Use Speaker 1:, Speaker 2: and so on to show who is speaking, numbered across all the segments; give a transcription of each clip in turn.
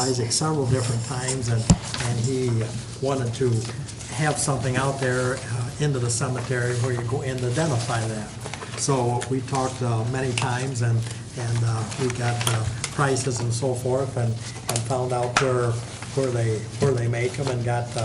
Speaker 1: Isaac several different times, and, and he wanted to have something out there uh, into the cemetery where you go and identify that. So we talked uh, many times, and, and uh, we got uh, prices and so forth, and, and found out where, where they, where they make them, and got uh,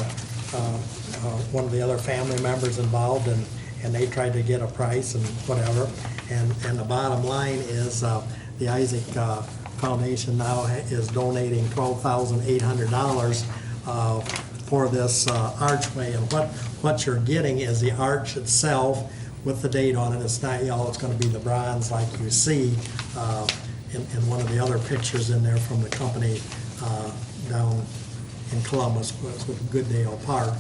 Speaker 1: uh, uh, one of the other family members involved, and, and they tried to get a price and whatever. And, and the bottom line is, uh, the Isaac uh, Foundation now ha- is donating twelve thousand eight hundred dollars uh, for this uh, archway. And what, what you're getting is the arch itself with the date on it. It's not yellow, it's gonna be the bronze like you see uh, in, in one of the other pictures in there from the company uh, down in Columbus with with Goodale Park.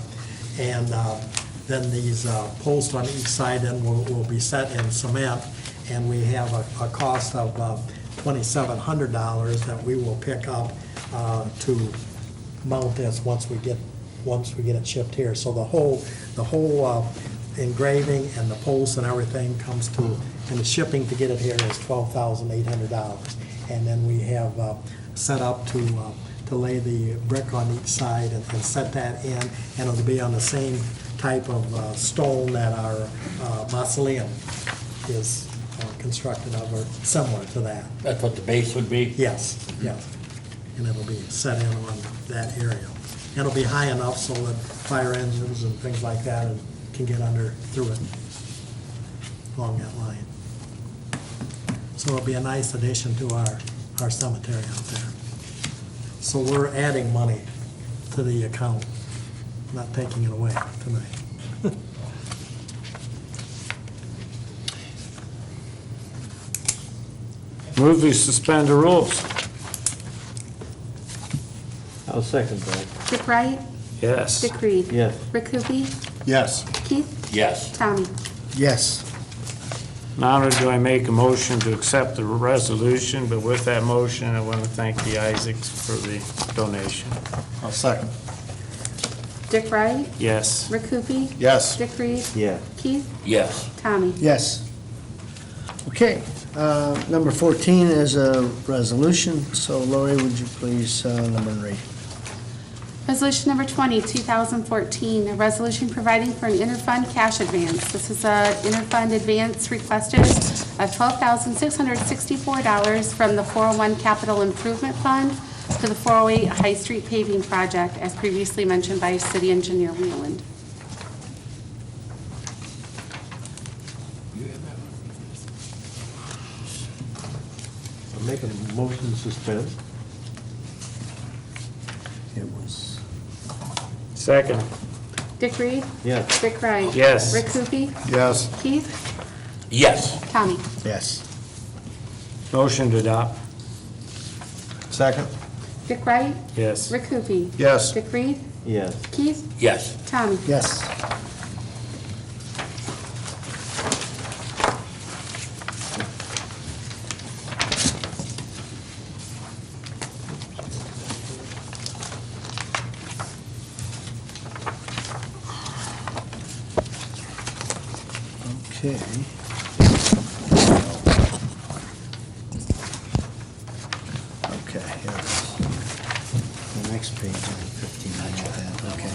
Speaker 1: And uh, then these uh, posts on each side then will, will be set in cement, and we have a, a cost of uh, $2,700 that we will pick up uh, to mount this once we get, once we get it shipped here. So the whole, the whole uh, engraving and the posts and everything comes to, and the shipping to get it here is $12,800. And then we have uh, set up to, uh, to lay the brick on each side and and set that in, and it'll be on the same type of uh, stone that our uh, mausoleum is uh, constructed of, or similar to that.
Speaker 2: That's what the base would be?
Speaker 1: Yes, yes. And it'll be set in on that area. And It'll be high enough so that fire engines and things like that can get under through it along that line. So it'll be a nice addition to our, our cemetery out there. So we're adding money to the account, not taking it away tonight.
Speaker 3: Move to suspend the rules.
Speaker 4: I'll second that.
Speaker 5: Dick Wright,
Speaker 3: Yes.
Speaker 5: Dick Reed.
Speaker 4: Yes.
Speaker 5: Rick Hoopie,
Speaker 6: Yes.
Speaker 5: Keith,
Speaker 2: Yes.
Speaker 5: Tommy.
Speaker 6: Yes.
Speaker 3: Not only do I make a motion to accept the resolution, but with that motion, I want to thank the Isaacs for the donation.
Speaker 6: I'll second.
Speaker 5: Dick Wright,
Speaker 3: Yes.
Speaker 5: Rick Hoopie,
Speaker 6: Yes.
Speaker 5: Dick Reed,
Speaker 4: Yeah.
Speaker 5: Keith,
Speaker 2: Yes.
Speaker 5: Tommy.
Speaker 6: Yes. Okay, uh, number 14 is a resolution, so Lori, would you please, uh, number and read?
Speaker 5: Resolution number 20, 2014, a resolution providing for an interfund cash advance. This is an interfund advance requested of $12,664 from the 401 Capital Improvement Fund to the 408 High Street paving project, as previously mentioned by City Engineer Wheeland.
Speaker 4: I'll make a motion to suspend.
Speaker 6: It was.
Speaker 3: Second.
Speaker 5: Dick Reed?
Speaker 4: Yes.
Speaker 5: Dick Wright?
Speaker 3: Yes.
Speaker 5: Rick Hoopie?
Speaker 6: Yes.
Speaker 5: Keith?
Speaker 2: Yes.
Speaker 5: Tommy?
Speaker 6: Yes.
Speaker 3: Motion to adopt.
Speaker 6: Second?
Speaker 5: Dick Wright?
Speaker 3: Yes.
Speaker 5: Rick Hoopie?
Speaker 6: Yes.
Speaker 5: Dick Reed?
Speaker 4: Yes.
Speaker 5: Keith?
Speaker 2: Yes.
Speaker 5: Tommy?
Speaker 6: Yes. Okay. Okay, here it is. The next page, number 15, I got that, okay.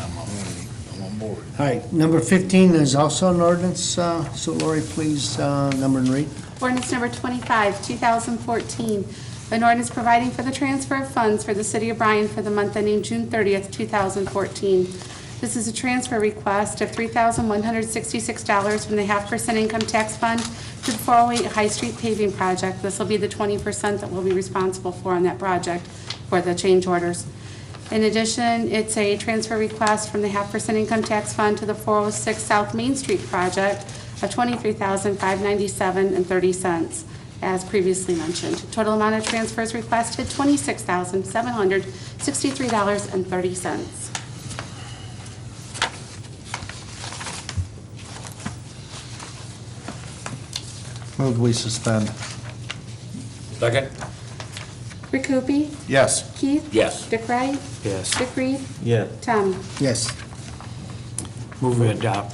Speaker 6: All right, number 15 is also an ordinance, uh, so Lori, please, uh, number and read.
Speaker 5: Ordinance number 25, 2014, an ordinance providing for the transfer of funds for the City of Bryan for the month ending June 30th, 2014. This is a transfer request of $3,166 from the half percent income tax fund to the 408 High Street paving project. This will be the 20% that we'll be responsible for on that project for the change orders. In addition, it's a transfer request from the half percent income tax fund to the 406 South Main Street project of $23,597.30, as previously mentioned. Total amount of transfers requested, $26,763.30.
Speaker 6: Move we suspend.
Speaker 2: Second?
Speaker 5: Rick Hoopie?
Speaker 6: Yes.
Speaker 5: Keith?
Speaker 2: Yes.
Speaker 5: Dick Wright?
Speaker 3: Yes.
Speaker 5: Dick Reed?
Speaker 4: Yes.
Speaker 5: Tommy?
Speaker 6: Yes.
Speaker 3: Move to adopt.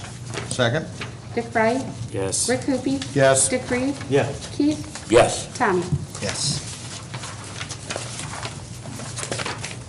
Speaker 6: Second?
Speaker 5: Dick Wright?
Speaker 3: Yes.
Speaker 5: Rick Hoopie?
Speaker 6: Yes.
Speaker 5: Dick Reed?
Speaker 4: Yes.
Speaker 5: Keith?
Speaker 2: Yes.
Speaker 5: Tommy?
Speaker 6: Yes.